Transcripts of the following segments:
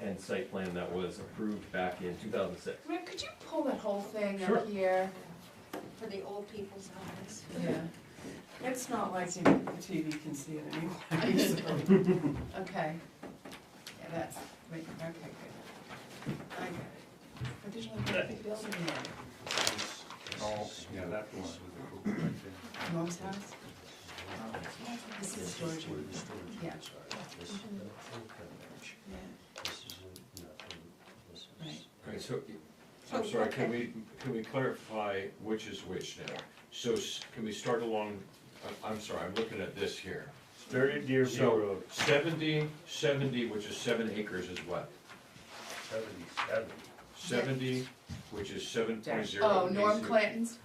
and site plan that was approved back in two thousand six. Rick, could you pull that whole thing Sure. up here? for the old people's eyes. Yeah, It's not like the TV can see it anyway, so. okay. Yeah, that's, wait, okay, good. I got it. Additional private building there, Oh, yeah, that one was a cool one, too. mom's house? Oh, This is storage, yeah, yeah. Right. All right, so, So I'm sorry, what can the- we, can we clarify which is which now? So, s- can we start along, I- I'm sorry, I'm looking at this here. Thirty Deerfield So, Road, seventy, seventy, which is seven acres is what? seventy-seven. Seventy, which is seven point zero. Oh, Norm Clanton's,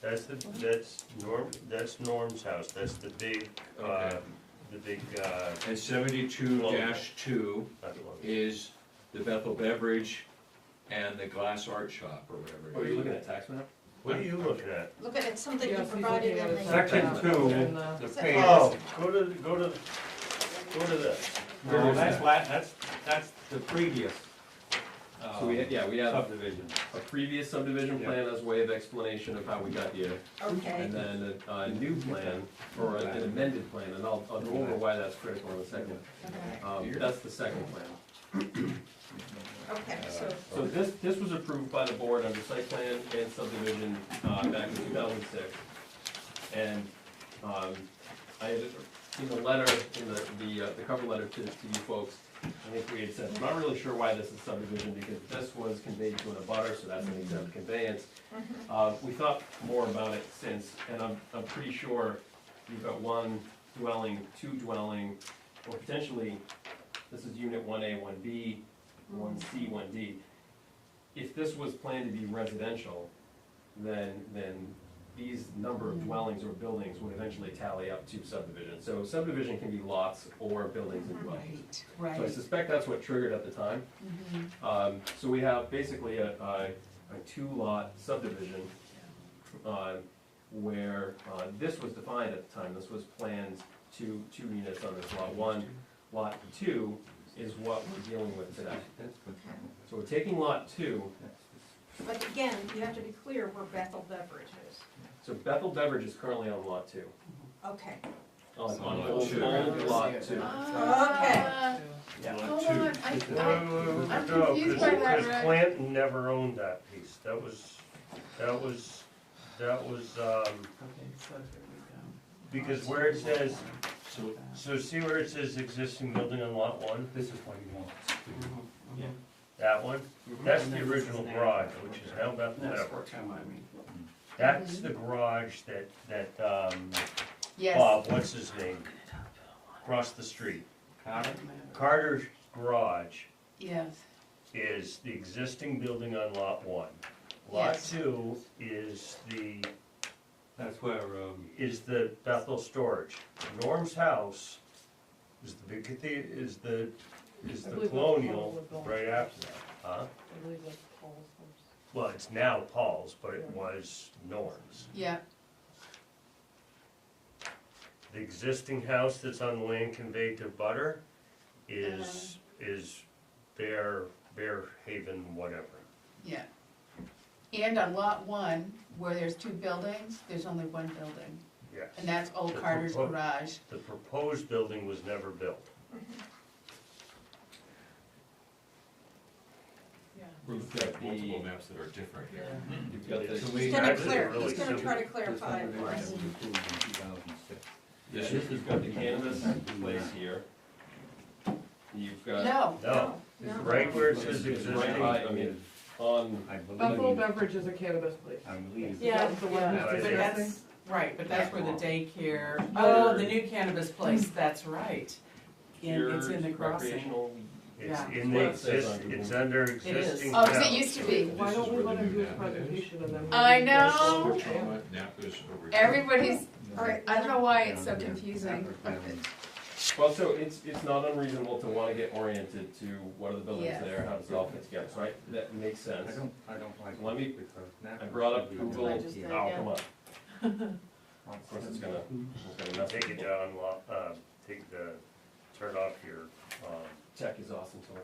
That's the, that's Norm, that's Norm's house, that's the big, uh, Okay. the big, uh, And seventy-two dash two not the one. is the Bethel Beverage and the Glass Art Shop or whatever. Oh, Are you looking at tax map? What are you looking at? Look at it, something you Yeah, he's provided looking in at it. the, Section Yeah. two, And, uh, The Set page, off. Oh, go to, go to, go to oh, this. Where No, is that's that? la, that's, that's the previous So we, ha- yeah, we have subdivision. a previous subdivision plan as way of explanation of how we got here. okay, And then a, a new plan, or an amended plan, and I'll, I'll go over why that's critical in a second. okay, Um, that's the second plan. okay, so, So this, this was approved by the board under site plan and subdivision, uh, back in two thousand six. And, um, I had seen the letter, in the, the, uh, the cover letter to, to you folks, I think we had said, I'm not really sure why this is subdivision, because this was conveyed to an abutter, so that's an exempt conveyance. Uh, we thought more about it since, and I'm, I'm pretty sure you've got one dwelling, two dwelling, or potentially, this is unit one A, one B, one C, one D. If this was planned to be residential, then, then these number of dwellings or buildings would eventually tally up to subdivision. So subdivision can be lots or buildings and dwellings. right, So I right. suspect that's what triggered at the time. Mhm. Um, so we have basically a, a, a two-lot subdivision, uh, where, uh, this was defined at the time, this was planned two, two units on this lot one. Lot two is what we're dealing with today. So we're taking lot two, but again, you have to be clear where Bethel Beverage is. so Bethel Beverage is currently on lot two, Okay, on, So on lot old, two. old lot two. Ah, Yeah. Hold on, I, Wait, I, wait, wait, I'm no, confused 'cause- by that, 'cause Rick. Clanton never owned that piece, that was, that was, that was, um, Okay, so there we go. because where it says, So so see where it says existing building on lot one, this is what he wants. Mm-hmm. that one? That's the original garage, which is now Bethel That's Beverage. what time I mean. That's the garage that, that, um, yes, Bob, what's his name? Across the street. Connor? Carter's Garage yes, is the existing building on lot one. Lot Yes. two is the, That's where, um, is the Bethel storage. Norm's house is the big cathe- is the, is the colonial right after that, huh? Well, it's now Paul's, but it was Norm's. yeah, The existing house that's on the land conveyed to Butter is, Uh-huh. is Bear, Bear Haven, whatever. yeah. And on lot one, where there's two buildings, there's only one building, Yes. and that's old Carter's Propo- garage. The proposed building was never built. We've We've got got multiple the, maps that are different here. you've got the. Can he's we- gonna Actually, clear, really he's gonna simple. try to clarify it for This us. subdivision was approved in 2006. This is, you've got the cannabis place here. You've got No, No, No. right where it says This is existing. right by, I mean, on, I believe. Buffalo Beverage is a cannabis place. I believe. Yeah, That's the one yeah. that's But disgusting. That's, right, but that's where the daycare, Oh. oh, the new cannabis place, that's right. And here it's in the crossing. recreational. It's Yeah. in the exist, it's under existing oh, 'cause it house. used to be, Why don't we This is where let him do the his map is. presentation and then? we'll- I know, Which one? Napa's over here. everybody's, All right, I don't know why it's so Yeah. confusing. Well, so it's, it's not unreasonable to wanna get oriented to what are the buildings Yes. there, how does it all fit together, right? That makes I sense. don't, I don't like. Let me- it because that I brought up should be Google. right I just here. did. Oh, come on, of Of course it's gonna, it's gonna mess Take it with down, lo- uh, take the, turn off your, um, Tech is awesome tool.